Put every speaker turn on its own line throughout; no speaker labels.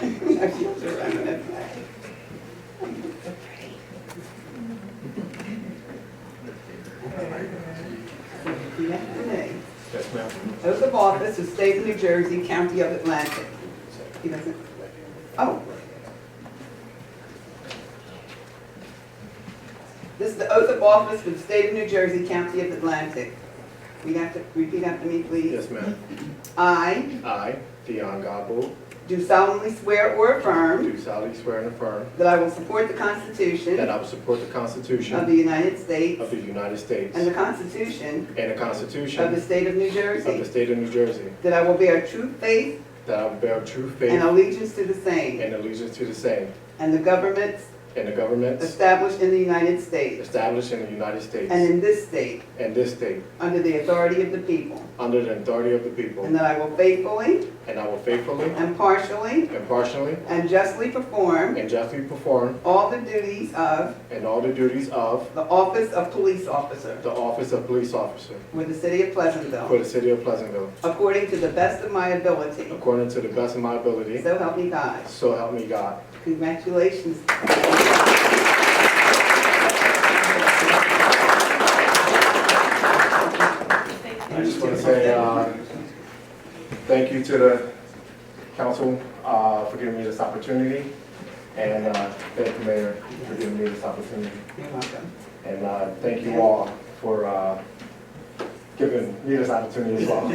My fields are running that way. So pretty. Repeat after me.
Yes, ma'am.
Oath of office of state of New Jersey, county of Atlantic. He doesn't, oh. This is the oath of office for the state of New Jersey, county of Atlantic. We have to repeat after me, please.
Yes, ma'am.
I
I, Dion Gobble,
do solemnly swear or affirm
do solemnly swear and affirm
that I will support the Constitution
that I will support the
of
Constitution
the United States
of the United States
and the
and
Constitution
the
of the
Constitution
state of New
of the
Jersey,
State of New Jersey,
that I will bear true faith
that I will bear true
and
faith
allegiance to the same
and allegiance to the same,
and the governments
and the governments
Established in the United States
established in the United States
and in this state,
and this state,
under the authority of the people,
under the authority of the people,
and that I will faithfully,
and I will faithfully,
impartially,
impartially,
and justly perform
and justly perform
all the duties of
in all the duties of
the office of police officer
the office of police officer
for the city of
for
Pleasantville,
the City of Pleasantville,
according to the best of my ability.
according to the best of my ability,
So help me God.
so help me God.
Congratulations.
I just want to say, uh, thank you to the council, uh, for giving me this opportunity. And, uh, thank you, Mayor, for giving me this opportunity.
You're welcome.
And, uh, thank you all for, uh, giving me this opportunity as well.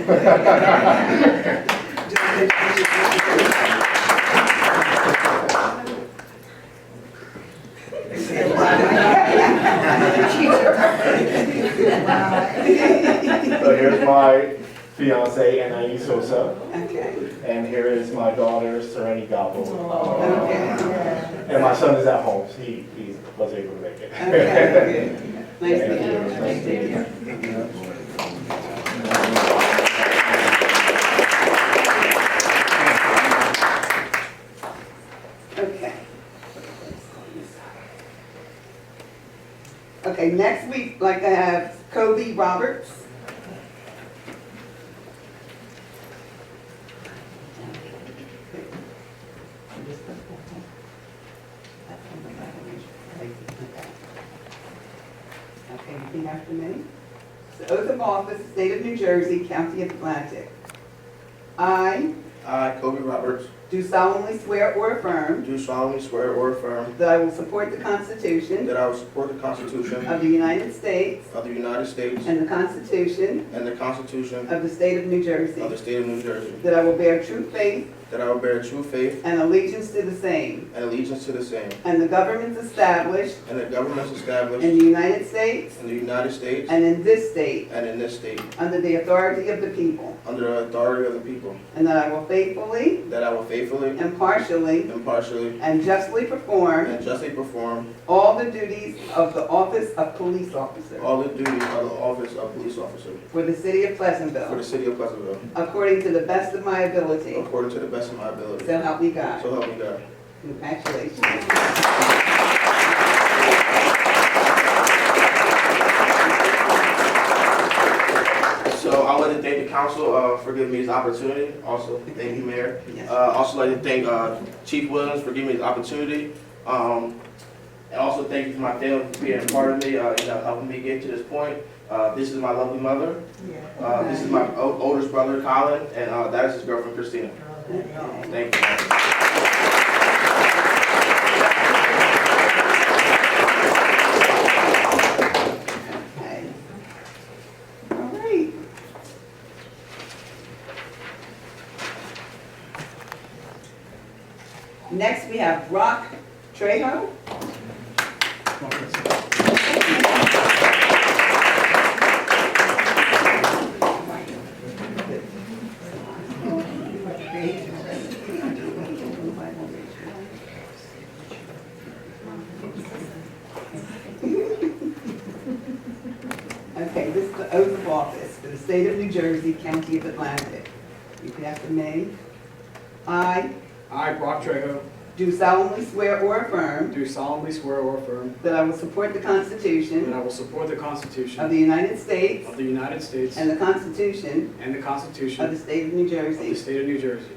So here's my fiance, Anais Sosa,
Okay,
and here is my daughter, Sereni Gobble.
okay,
And my son is at home, he, he was able to make it.
okay, good. Nice to meet you.
Nice to meet you.
Okay. Okay, next week, like I have Kobe Roberts. Okay, repeat after me. The oath of office, State of New Jersey, County of Atlantic. I
I, Kobe Roberts,
do solemnly swear or affirm
do solemnly swear or affirm
that I will support the Constitution
that I will support the Constitution
Of the United States
of the United States
and the Constitution
and the Constitution
of the State of New
of the
Jersey.
State of New Jersey,
That I will bear true faith
that I will bear true faith
and allegiance to the same
and allegiance to the same,
and the governments established
and the governments
in
established
the United States
in the United States
and in this state
and in this state,
under the authority of the people.
under the authority of the people,
And that I will faithfully,
that I will faithfully,
impartially,
impartially,
and justly perform
and justly perform
all the duties of the office of police officer
all the duties of the office of police officer
for the city of
for the
Pleasantville,
city of Pleasantville,
according to the best of my ability.
according to the best of my ability.
So help me God.
So help me God.
Congratulations.
So I want to thank the council uh, for giving me this opportunity. Also, thank you, Mayor.
Yes.
Uh, Also like to thank uh, Chief Williams for giving me this opportunity. Um, And also thank you for my family for being a part of me, uh, you know, helping me get to this point. Uh, This is my lovely mother. Uh, This is my o- oldest brother, Colin, and uh, that is his girlfriend, Christina.
Okay.
Thank you.
Okay. All right. Next, we have Rock Trejo. Okay, this is the oath of office for the state of New Jersey, county of Atlantic. Repeat after me. I
I, Brock Trejo,
do solemnly swear or affirm
do solemnly swear or affirm
that I will support the
that
Constitution
I will support the
of
Constitution
the United States
of the United States
and the Constitution
and the
of the
Constitution
state of New
of the
Jersey.
State of New Jersey,